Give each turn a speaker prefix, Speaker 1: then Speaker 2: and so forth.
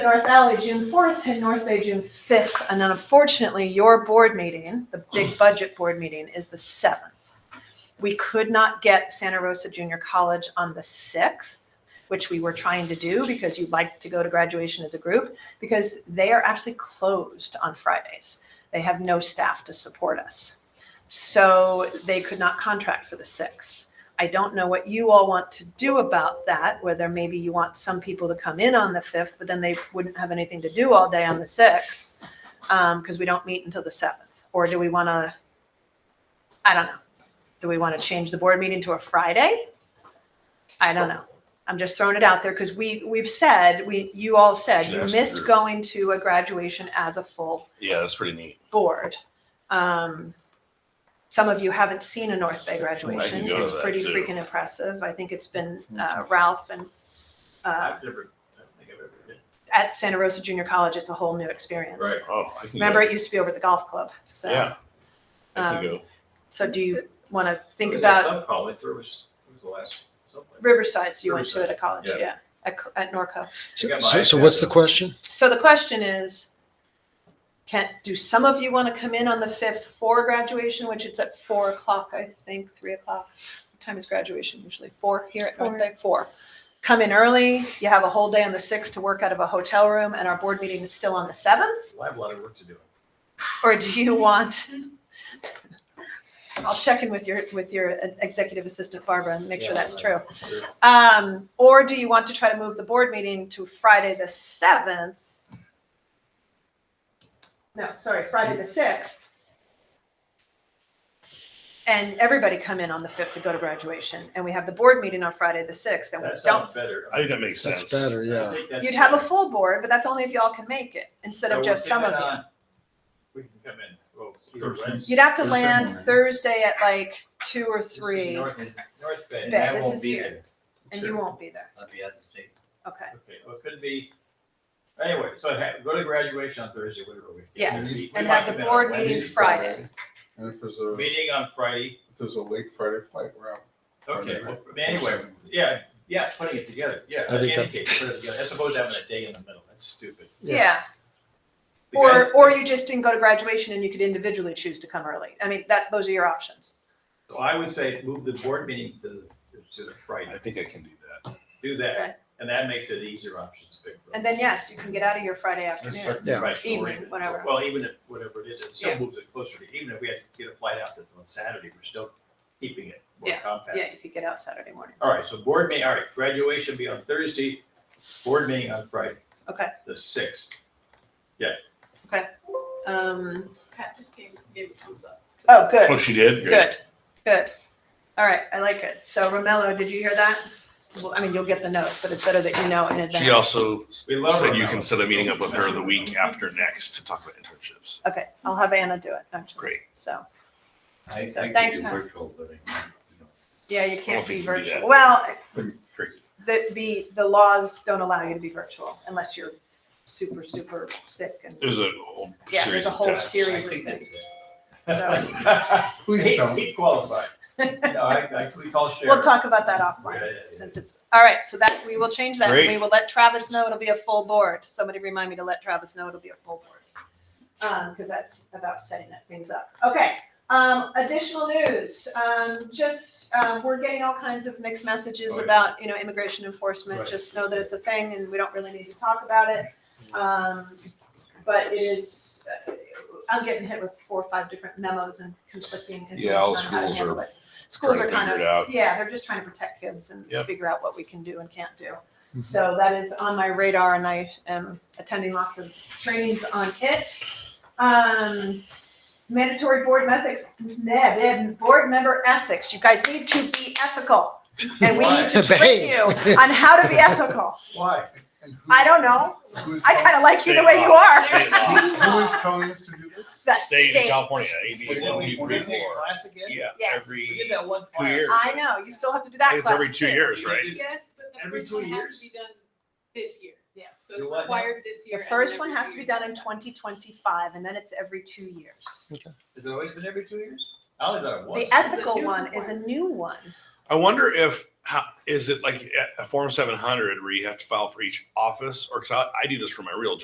Speaker 1: North Valley June fourth and North Bay June fifth, and then unfortunately, your board meeting, the big budget board meeting, is the seventh. We could not get Santa Rosa Junior College on the sixth, which we were trying to do because you'd like to go to graduation as a group, because they are actually closed on Fridays. They have no staff to support us. So they could not contract for the sixth. I don't know what you all want to do about that, whether maybe you want some people to come in on the fifth, but then they wouldn't have anything to do all day on the sixth, because we don't meet until the seventh. Or do we want to, I don't know. Do we want to change the board meeting to a Friday? I don't know. I'm just throwing it out there because we, we've said, we, you all said you
Speaker 2: Yes,
Speaker 1: missed
Speaker 2: sure.
Speaker 1: going to a graduation as a full
Speaker 2: Yeah, that's pretty neat.
Speaker 1: board. Um, some of you haven't seen a North Bay graduation.
Speaker 2: go to
Speaker 1: It's
Speaker 2: that,
Speaker 1: pretty
Speaker 2: too. Hmm,
Speaker 1: freaking impressive. I think it's been uh, Ralph and uh,
Speaker 3: I've never, I don't think I've ever been.
Speaker 1: at Santa Rosa Junior College. It's a whole new experience.
Speaker 3: Right.
Speaker 2: Oh, I can
Speaker 1: Remember,
Speaker 2: go.
Speaker 1: it used to be over at the golf club. So,
Speaker 2: Yeah. I
Speaker 1: um,
Speaker 2: can go.
Speaker 1: so do you want to think
Speaker 3: It was
Speaker 1: about
Speaker 3: at Some college, where was, where was the last, something?
Speaker 1: Riverside? So you went to it at college, yeah,
Speaker 3: Riverside,
Speaker 1: at, Co- at Norco.
Speaker 3: I
Speaker 4: So,
Speaker 3: got my
Speaker 4: so- so
Speaker 3: iPad
Speaker 4: what's the
Speaker 3: though.
Speaker 4: question?
Speaker 1: So the question is, can do some of you want to come in on the fifth for graduation, which it's at four o'clock, I think, three o'clock. What time is graduation usually? Four here at North
Speaker 5: Four.
Speaker 1: Bay? Four. Come in early. You have a whole day on the sixth to work out of a hotel room, and our board meeting is still on the seventh.
Speaker 3: Well, I have a lot of work to do.
Speaker 1: Or do you want? I'll check in with your with your executive assistant Barbara and make sure
Speaker 3: Yeah,
Speaker 1: that's
Speaker 3: right.
Speaker 1: true.
Speaker 3: Sure.
Speaker 1: Um, or do you want to try to move the board meeting to Friday the seventh? No, sorry, Friday the sixth. And everybody come in on the fifth to go to graduation, and we have the board meeting on Friday the sixth, and we
Speaker 3: That
Speaker 1: don't.
Speaker 3: sounds better.
Speaker 2: I think that makes sense.
Speaker 4: That's better, yeah.
Speaker 1: You'd have a full board, but that's only if y'all can make it, instead of just some of you.
Speaker 3: We can come in, well, either
Speaker 4: Thursday.
Speaker 3: Wednesday.
Speaker 1: You'd have to
Speaker 4: Thursday
Speaker 1: land
Speaker 4: morning.
Speaker 1: Thursday at like two or
Speaker 3: This is
Speaker 1: three,
Speaker 3: North North Bay.
Speaker 1: Bay,
Speaker 6: I
Speaker 1: this
Speaker 6: won't
Speaker 1: is
Speaker 6: be
Speaker 1: here.
Speaker 6: there.
Speaker 1: and you won't be there,
Speaker 6: I'll be out of state.
Speaker 1: okay.
Speaker 3: Okay, well, it could be, anyway, so ha- go to graduation on Thursday, whatever we.
Speaker 1: Yes,
Speaker 3: we- we
Speaker 1: and
Speaker 3: might
Speaker 1: have the
Speaker 3: come in on
Speaker 1: board meeting
Speaker 3: Wednesday.
Speaker 1: Friday.
Speaker 4: And if there's a,
Speaker 3: Meeting on Friday,
Speaker 4: if there's a late Friday flight, we're out.
Speaker 3: okay,
Speaker 4: Friday,
Speaker 3: well,
Speaker 4: right?
Speaker 3: anyway, yeah, yeah, putting it together, yeah,
Speaker 4: I think
Speaker 3: in any
Speaker 4: that-
Speaker 3: case, put it together, I suppose having a day in the middle, that's stupid.
Speaker 4: Yeah.
Speaker 1: Yeah,
Speaker 3: The guy-
Speaker 1: Or, or you just didn't go to graduation and you could individually choose to come early. I mean, that, those are your options.
Speaker 3: So I would say move the board meeting to, to the
Speaker 2: I
Speaker 3: Friday,
Speaker 2: think I can do that.
Speaker 3: do
Speaker 1: Okay.
Speaker 3: that, and that makes it easier options. to pick from.
Speaker 1: And then, yes, you can get out of here Friday afternoon.
Speaker 4: Yeah.
Speaker 3: Right, so
Speaker 1: Evening,
Speaker 3: we're-
Speaker 1: whatever.
Speaker 3: Well, even if, whatever it is, it
Speaker 1: Yeah.
Speaker 3: still moves it closer to, even if we had to get a flight out that's on Saturday, we're still keeping it more compact.
Speaker 1: Yeah, you could get out Saturday morning.
Speaker 3: All right, so board meeting, all right, graduation be on Thursday, board meeting on Friday.
Speaker 1: Okay.
Speaker 3: The sixth.
Speaker 1: Um,
Speaker 5: Pat just gave, gave a thumbs up.
Speaker 1: oh,
Speaker 2: Oh,
Speaker 1: good,
Speaker 2: she did?
Speaker 1: good, good. All right, I like it. So Romello, did you hear that? Well, I mean, you'll get the notes, but it's better that you know in advance.
Speaker 2: She also s-
Speaker 3: We love
Speaker 2: said you
Speaker 3: Romello.
Speaker 2: can set a meeting up with her the week after next to talk about internships.
Speaker 1: Okay, I'll have Anna do it, actually.
Speaker 2: Great.
Speaker 1: So,
Speaker 6: I,
Speaker 1: So
Speaker 6: I could
Speaker 1: thanks,
Speaker 6: do
Speaker 1: Pat.
Speaker 6: virtual, but I, can't, you
Speaker 1: yeah, you can't be
Speaker 2: think you can do
Speaker 1: virtual.
Speaker 2: that.
Speaker 1: Well,
Speaker 6: know, tricky.
Speaker 1: the, the, the laws don't allow you to be virtual unless you're super, super sick and,
Speaker 2: There's a whole
Speaker 1: yeah,
Speaker 2: series
Speaker 1: there's a
Speaker 2: of
Speaker 1: whole
Speaker 2: tests.
Speaker 1: series of
Speaker 6: think that's-
Speaker 1: things. So.
Speaker 4: Please
Speaker 3: He-
Speaker 4: don't.
Speaker 3: He qualified. No, I, I, we call Sharon.
Speaker 1: We'll talk about that offline,
Speaker 3: Yeah, yeah, yeah.
Speaker 1: since it's, all right, so that, we will change that, and we
Speaker 2: Great.
Speaker 1: will let Travis know it'll be a full board. Somebody remind me to let Travis know it'll be a full board. Um, because that's about setting that things up. Okay, um, additional news, um, just, um, we're getting all kinds of mixed messages
Speaker 3: Oh, yeah.
Speaker 1: about, you know, immigration enforcement.
Speaker 3: Right.
Speaker 1: Just know that it's a thing and we don't really need to talk about it. Um, but it is, uh, I'm getting hit with four or five different memos and conflicting.
Speaker 2: Yeah, all
Speaker 1: information on how to
Speaker 2: schools
Speaker 1: handle
Speaker 2: are
Speaker 1: it. Schools
Speaker 2: trying
Speaker 1: are
Speaker 2: to
Speaker 1: kind of
Speaker 2: figure it out.
Speaker 1: yeah, they're just trying to protect kids and
Speaker 2: Yep. Mm-hmm.
Speaker 1: figure out what we can do and can't do.
Speaker 4: Mhm.
Speaker 1: So that is on my radar and I am attending lots of trainings on it. Um, mandatory board ethics, nah, man, board member ethics. You guys need to be ethical. And we need to train you
Speaker 4: Behave.
Speaker 1: on how to be ethical.
Speaker 3: Why?
Speaker 1: I don't know.
Speaker 4: Who's
Speaker 1: I
Speaker 4: telling-
Speaker 1: kind of like you the
Speaker 2: State
Speaker 1: way you
Speaker 2: law.
Speaker 1: are.
Speaker 2: State law.
Speaker 4: Who is telling us to do this?
Speaker 1: The
Speaker 2: State of
Speaker 1: state.
Speaker 2: California, AB
Speaker 3: Wait, when we- when we take a
Speaker 2: 134.
Speaker 3: Class again?
Speaker 2: Yeah,
Speaker 1: Yes.
Speaker 2: every,
Speaker 3: We did that one
Speaker 2: Two
Speaker 3: class.
Speaker 2: years.
Speaker 1: I know, you still have to do
Speaker 2: I
Speaker 1: that
Speaker 2: think it's every
Speaker 1: class
Speaker 2: two
Speaker 1: too.
Speaker 2: years, right?
Speaker 5: Yes, but the
Speaker 3: Every
Speaker 5: first
Speaker 3: two
Speaker 5: one has
Speaker 3: years?
Speaker 5: to be done this year,
Speaker 1: Yes.
Speaker 5: so it's
Speaker 3: Do what now?
Speaker 5: required this year.
Speaker 1: The
Speaker 5: and
Speaker 1: first
Speaker 5: then
Speaker 1: one
Speaker 5: every
Speaker 1: has
Speaker 5: two
Speaker 1: to be
Speaker 5: years
Speaker 1: done in
Speaker 5: after that.
Speaker 1: twenty twenty-five, and then it's every two years.
Speaker 3: Has it always been every two years? I only thought it was.
Speaker 1: The ethical
Speaker 5: new
Speaker 1: one is a new one.
Speaker 2: I wonder if how is it like a- a form seven hundred where you have to file for each office, or because I, I do this for my real job.